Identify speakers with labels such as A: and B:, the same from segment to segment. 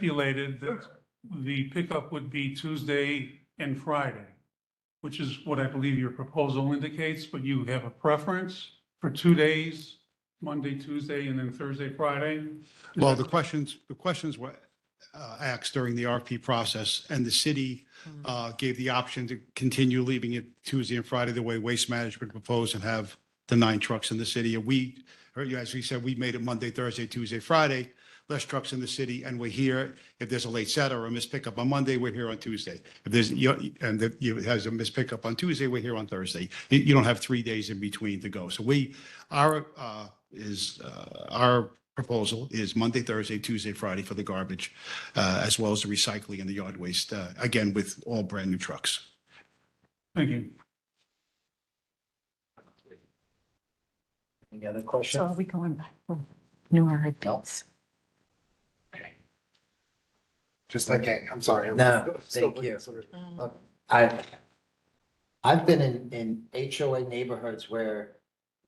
A: stipulated that the pickup would be Tuesday and Friday, which is what I believe your proposal indicates, but you have a preference for two days, Monday, Tuesday, and then Thursday, Friday?
B: Well, the questions, the questions were uh, asked during the RFP process, and the city uh, gave the option to continue leaving it Tuesday and Friday the way Waste Management proposed and have the nine trucks in the city. And we, or, you know, as we said, we made it Monday, Thursday, Tuesday, Friday, less trucks in the city, and we're here. If there's a late set or a missed pickup on Monday, we're here on Tuesday. If there's, you- and if you has a missed pickup on Tuesday, we're here on Thursday. You- You don't have three days in between to go. So we, our, uh, is, uh, our proposal is Monday, Thursday, Tuesday, Friday for the garbage, uh, as well as the recycling and the yard waste, uh, again, with all brand new trucks.
A: Thank you.
C: Any other
D: So are
C: questions?
D: we going back for new RFPs?
E: Just, okay, I'm sorry. I'm
C: No,
E: still
C: thank you.
E: looking at-
C: I, I've been in, in HOA neighborhoods where,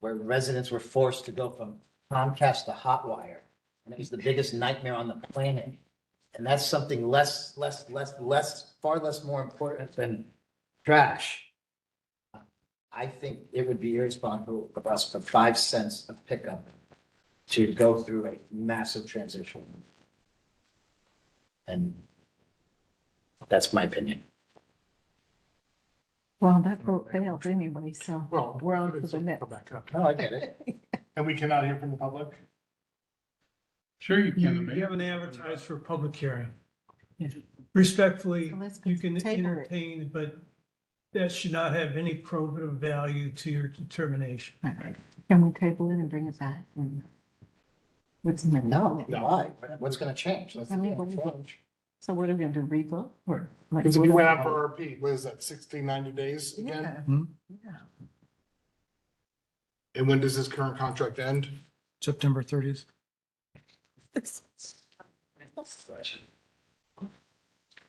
C: where residents were forced to go from Comcast to Hotwire. And it was the biggest nightmare on the planet. And that's something less, less, less, less, far less more important than trash. I think it would be irresponsible of us for five cents of pickup to go through a massive transition. And that's my opinion.
D: Well, that vote failed anyway, so.
E: Well,
D: We're on to
E: it's-
D: the next.
E: go back up.
C: No, I get it.
E: And we cannot hear from the public?
A: Sure you
F: You,
A: can.
F: you haven't advertised for a public hearing.
D: Yeah.
F: Respectfully,
D: Let's
F: you can
D: table it.
F: entertain, but that should not have any probative value to your determination.
D: All right. Can we table it and bring it back? and- What's in the
C: No,
D: no?
C: why? What's gonna change? That's
D: I mean, what do you
C: the
D: So what are we going to do, rebook or? like,
E: Because we
D: what-
E: went out for RP, what is that, 16, 90 days again?
D: Yeah,
F: Hmm?
D: yeah.
E: And when does this current contract end?
F: September thirtieth.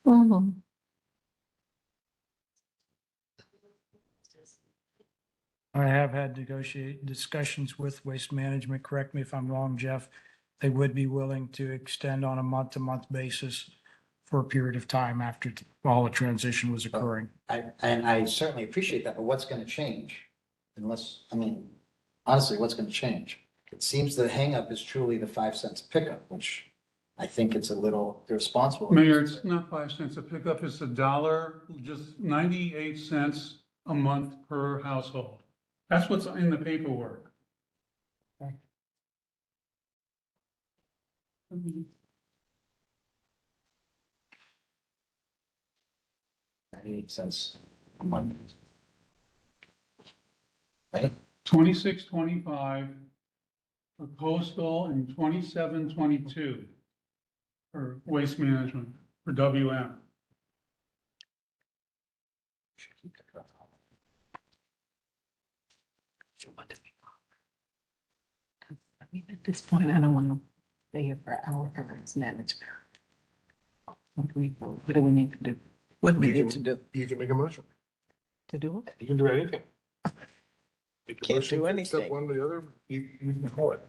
D: Well,
F: I have had negotiate discussions with Waste Management, correct me if I'm wrong, Jeff. They would be willing to extend on a month-to-month basis for a period of time after all the transition was occurring.
C: I, and I certainly appreciate that, but what's gonna change? Unless, I mean, honestly, what's gonna change? It seems the hangup is truly the five cents pickup, which I think it's a little irresponsible.
A: Mayor, it's not five cents a pickup, it's a dollar, just 98 cents a month per household. That's what's in the paperwork.
C: Ninety-eight cents a month. Right?
A: 2625 for coastal and 2722 for waste management, for WM.
D: I mean, at this point, I don't want to stay here for our governance management. What do we, what do we need to do? What do we need to do?
E: You can make a motion.
D: To do it?
E: You can do anything. Make a
G: Can't
E: motion
G: do
E: to accept
G: anything.
E: One or the other, you, you can call it.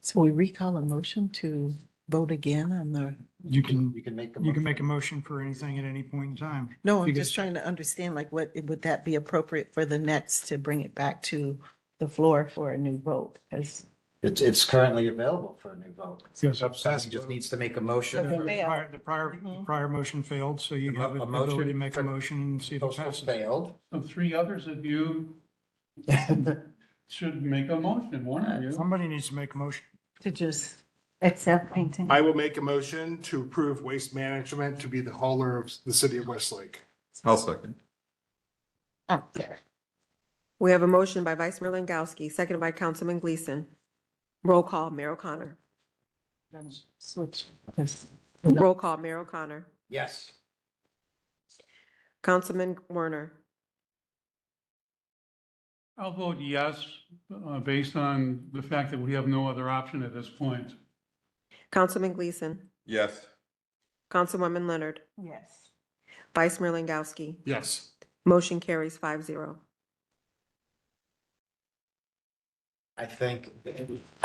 G: So we recall a motion to vote again on the,
F: You can,
C: You can make a.
F: you can make a motion for anything at any point in time.
G: no, I'm
F: Because-
G: just trying to understand, like, what, would that be appropriate for the next to bring it back to the floor for a new vote? As
C: It's, it's currently available for a new vote.
F: Yes.
C: He just needs to make a motion.
G: Okay.
F: The
G: failed.
F: prior, the prior, the
G: Mhm.
F: prior motion failed, so you
C: A mo-
F: have the
C: a motion
F: ability to make a
C: for-
F: motion and see if it
C: Postal
F: passes.
C: failed.
A: So three others of you should make a motion, one of you.
F: Somebody needs to make a motion.
G: to just,
D: Except painting.
E: I will make a motion to approve Waste Management to be the hauler of the city of Westlake.
H: I'll second.
G: Oh,
D: Up there.
I: We have a motion by Vice Mayor Langowski, seconded by Councilman Gleason. Roll call, Mayor O'Connor.
D: Then Switch. this.
I: Roll call, Mayor O'Connor.
C: Yes.
I: Councilman Werner.
A: I'll vote yes, uh, based on the fact that we have no other option at this point.
I: Councilman Gleason.
H: Yes.
I: Councilwoman Leonard.
D: Yes.
I: Vice Mayor Langowski.
E: Yes.
I: Motion carries five zero.
C: I think